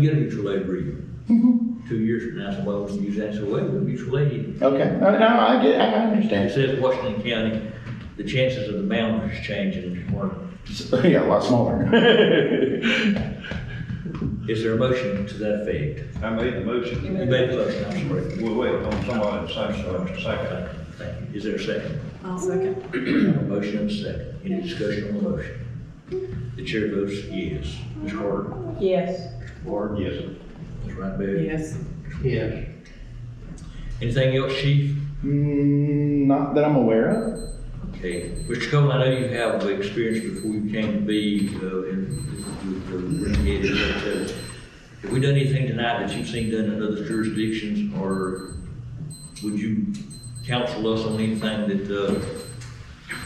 Get a mutual aid agreement. Two years from now, somebody wants to use that, so wait, we'll mutual aid. Okay, no, no, I get, I It understand. says Washington County, the chances of the boundaries changing are, Yeah, a lot smaller. is there a motion to that effect? I made the motion. You made the motion, I'm sorry. We'll wait on somebody to I'm sorry, say Mr. second. Secretary. Thank you. Is there a second? I'll second. A motion and a second. Any discussion on the motion? The chair votes yes. Ms. Carter? Yes. Ward? Yes. Ms. Rutherford? Yes. Yeah. Anything else, chief? Mm, not that I'm aware of. Okay. Mr. Cole, I know you have experience before you came to be uh, in the renegade, but uh, have we done anything tonight that you've seen done in other jurisdictions, or would you counsel us on anything that uh,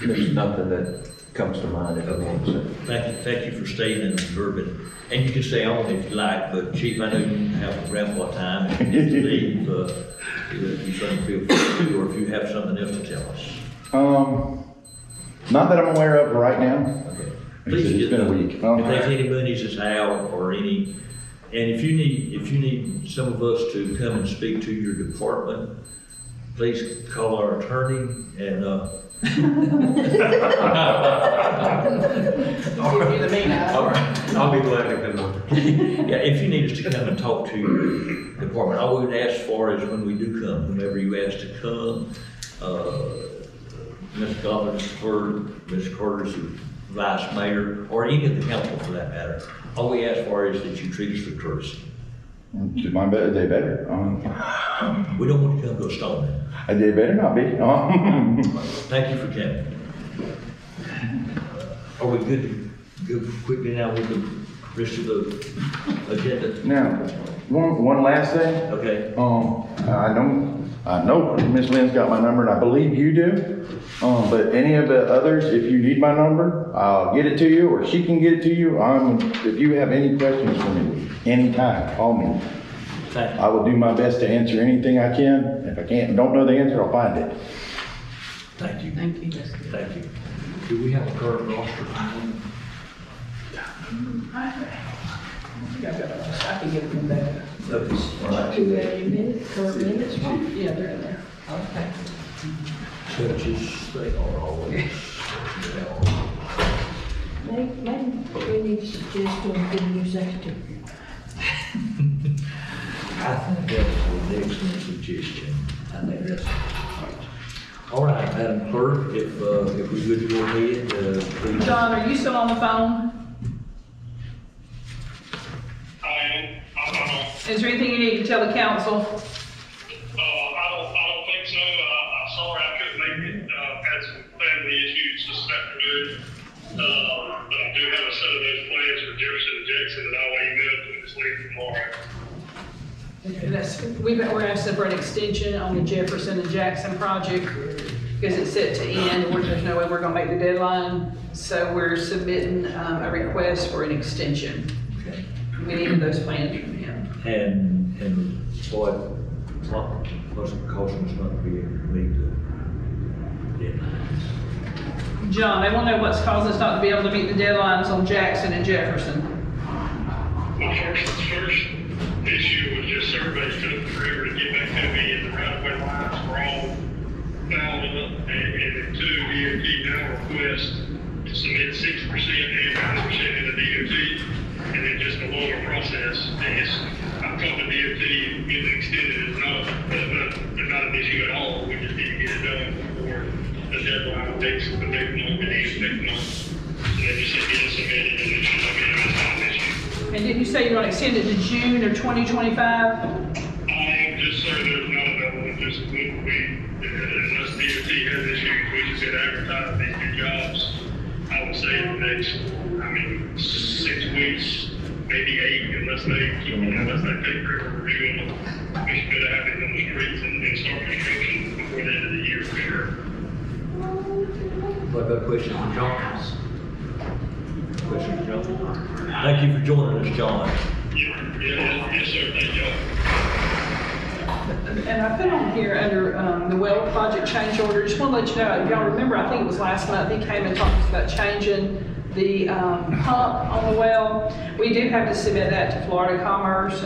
There's nothing that comes to mind at the moment, so. Thank you, thank you for staying in the urban. And you can stay on if you like, but Chief, I know you have grandpa time and you need to leave, uh, if you certainly feel free to, or if you have something else to tell us. Um, not that I'm aware of right now. Okay. It's- Please it's get been a them. week. If there's any monies that's out or any, and if you need, if you need some of us to come and speak to your department, please call our attorney and, uh, All right, I'll be glad to come over. Yeah, if you need us to come and talk to your department, all we would ask for is when we do come, whenever you ask to come, uh, Ms. Gobbins, for Ms. Carter's vice mayor, or any of the council for that matter, all we ask for is that you treat us with courtesy. Do my better, they better. Um, We don't want to come to a stone. they better not be. Um, Thank you for coming. Are we good, to good quickly now with the rest of the agenda? now, one, one last thing. Okay. Um, I don't, I know Miss Lynn's got my number, and I believe you do. Um, but any of the others, if you need my number, I'll get it to you, or she can get it to you. Um, if you have any questions for me, anytime, call me. Thank I will do my best to answer anything I can. If I can't, don't know the answer, I'll find it. Thank you, Thank you. thank you. Do we have a current roster? I can give them back. Notice. Do they minutes, current minutes? Yeah, they're in there. Okay. Judges, they are always. they are. Maybe, maybe we need to suggest one for the new secretary. I think that's an excellent suggestion. I think that's. All right, Madam Clerk, if, uh, if we could go ahead, uh, please. John, are you still on the phone? I, I, Is there anything you need to tell the council? uh, I don't, I don't think so. Uh, I'm sorry I couldn't make it. Uh, had some family issues this afternoon. Uh, but I do have a set of those plans for Jefferson and Jackson that I'll email to Ms. Lee tomorrow. That's, we've, we're gonna ask for an extension on the Jefferson and Jackson project, because it's set to end, we're, there's no way we're gonna make the deadline, so we're submitting, um, a request for an extension. Okay. We need those plans from him. And, and what, what, what's the cost of us not being able to meet the deadlines? John, they wanna know what's caused us not to be able to meet the deadlines on Jackson and Jefferson. The first, first issue was just everybody took forever to get back to me and the right of way lines were all fouled up. And, and two, DOT now requests to submit six percent and nine percent in the DOT. And it's just a longer process. And it's, I've talked to DOT, getting extended is not, uh, uh, not an issue at all. We just need to get it done before the deadline takes, the next month, the next month. And they just said, get it submitted and it should not be, it's not an issue. And didn't you say you're gonna extend it to June of twenty twenty-five? I am just saying there's not available, just we, we, unless DOT has issues, we just get advertised these new jobs. I would say in the next, I mean, six weeks, maybe eight, unless they, keep- unless they take forever reviewing them. We should better have it on the streets and, and start construction before the end of the year for sure. What about questions from John? Question from John? Thank you for joining us, John. Yeah, yeah, yes, sir, thank y'all. And I put on here under um, the well project change order, just want to let you know, y'all remember, I think it was last month, he came and talked to us about changing The um, pump on the well, we do have to submit that to Florida Commerce